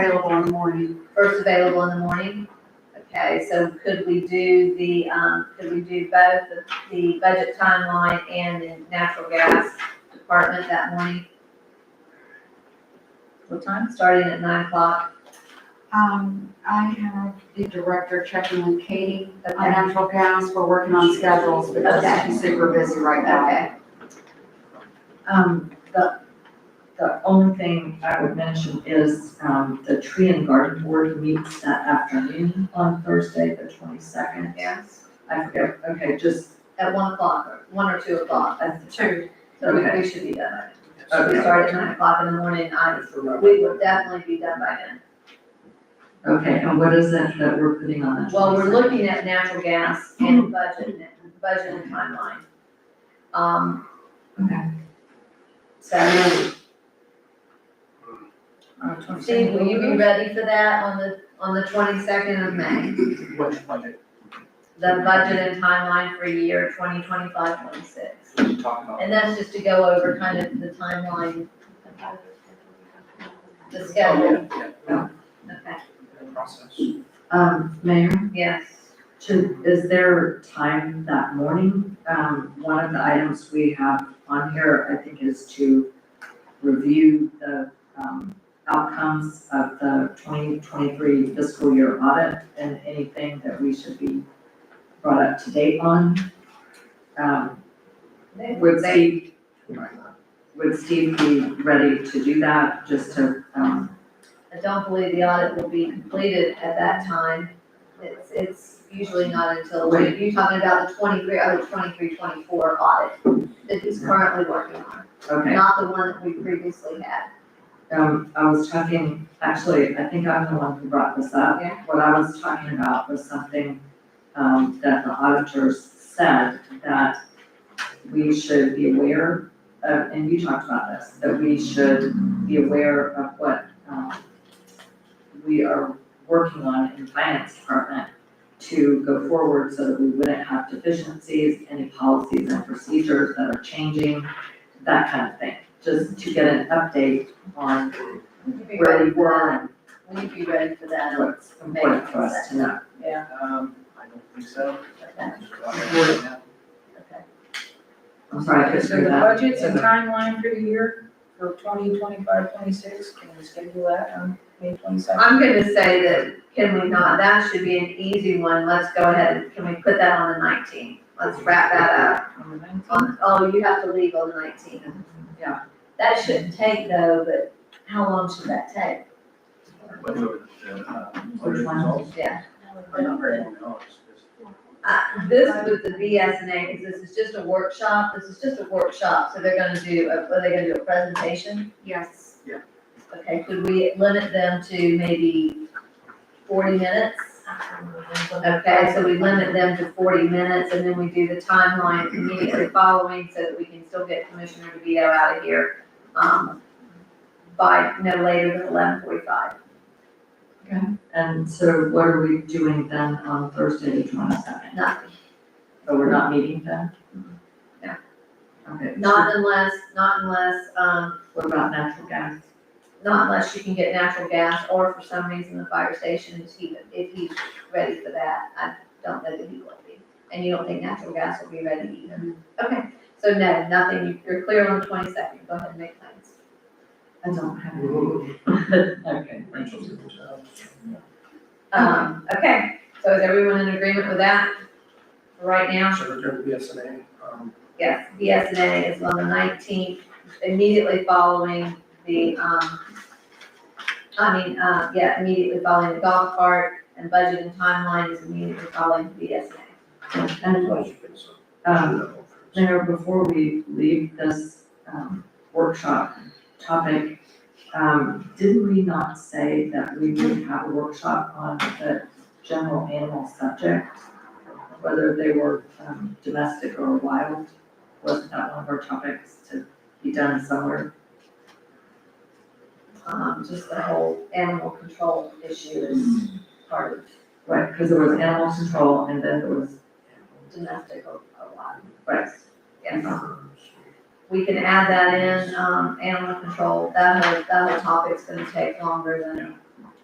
available in the morning. First available in the morning? Okay, so could we do the, um, could we do both the, the budget timeline and the natural gas department that morning? What time? Starting at nine o'clock, Um, I have the director checking with Katie on okay, natural gas. We're working on schedules because Okay. she's super busy right now. okay. Um, the, the only thing I would mention is, um, the tree and garden board meets that afternoon on Thursday, the twenty-second. Yes, I forget, okay, just, at one o'clock, or one or two o'clock, I th- Two. So we, we Okay. should be done. by then. We okay, start at nine o'clock in the morning, I, we will definitely be done by then. okay, and what is it that we're putting on that? Well, we're looking at natural gas and budget, budget and timeline. Um, 22nd? so, Okay. Steve, will you be ready for that on the, on the twenty-second of May? Which budget? The budget and timeline for year 2025-26, What are you talking about? And that's just to go over kind of the timeline, the schedule, Oh, Yeah, okay, the process. Um, Mayor, yes. should, is there time that morning? Um, one of the items we have on here, I think, is to review the, um, outcomes of the twenty twenty-three fiscal year audit and anything that we should be brought up to date on. Um, They- would they- Steve, would Steve be ready to do that, just to, um, I don't believe the audit will be completed at that time. It's, it's usually not until, Right. you're talking about the 23 oh, the 23, 24 audit that he's currently working on, okay? not the one that we previously had. Um, I was talking, actually, I think I'm the one who brought this up. Yeah. What I was talking about was something, um, that the auditors said that we should be aware of, and you talked about this, that we should be aware of what, um, we are working on in the finance department to go forward so that we wouldn't have deficiencies, any policies and procedures that are changing, that kind of thing. Just to get an update on We'd be where we ready for were that. and We'd be ready for that, what's important for us to know. yeah, Um, I don't think so. okay, okay. I'm sorry, I couldn't So the hear that. budgets and timeline for the year for 2025-26. can we schedule that um, on May twenty-second? I'm gonna say that, can we not, that should be an easy one, let's go ahead, can we put that on the nineteenth? Let's wrap that up. on, oh, you have to leave on the nineteenth. Yeah. That shouldn't take though, but how long should that take? Uh, Which one? Yeah. Well, Uh, this with the BSNA, because this is just a workshop, this is just a workshop, so they're gonna do, a- are they gonna do a presentation? Yes. Okay, could we limit them to maybe forty minutes? Okay, so we limit them to forty minutes and then we do the timeline immediately following so that we can still get Commissioner DeVito out of here, um, by no later than eleven forty-five. And so what are we doing then on Thursday the twenty-second? Nothing, So we're not meeting then? Mm-hmm. No. Okay. not unless, not unless, um, What about natural gas? not unless you can get natural gas or for some reason the fire station is he, if he's ready for that, I don't know that he will be. And you don't think natural gas will be ready either? Okay, so no, nothing, You- you're clear on the twenty-second, go ahead and make plans. I don't have. Okay. Um, okay, so is everyone in agreement with that right now? So return to BSNA, um, Yes, BSNA is on the nineteenth, immediately following the, um, I mean, uh, yeah, immediately following the golf cart and budget and timeline is immediately following BSNA. And, um, Mayor, before we leave this, um, workshop topic, um, didn't we not say that we would have a workshop on the general animal subject? Whether they were, um, domestic or wild, wasn't that one of our topics to be done somewhere? Um, just the whole animal control issue is part of Right, because there was animal control and then there was, domestic a a lot, right, yes. We can add that in, um, animal control, that whole, that whole topic's gonna take longer than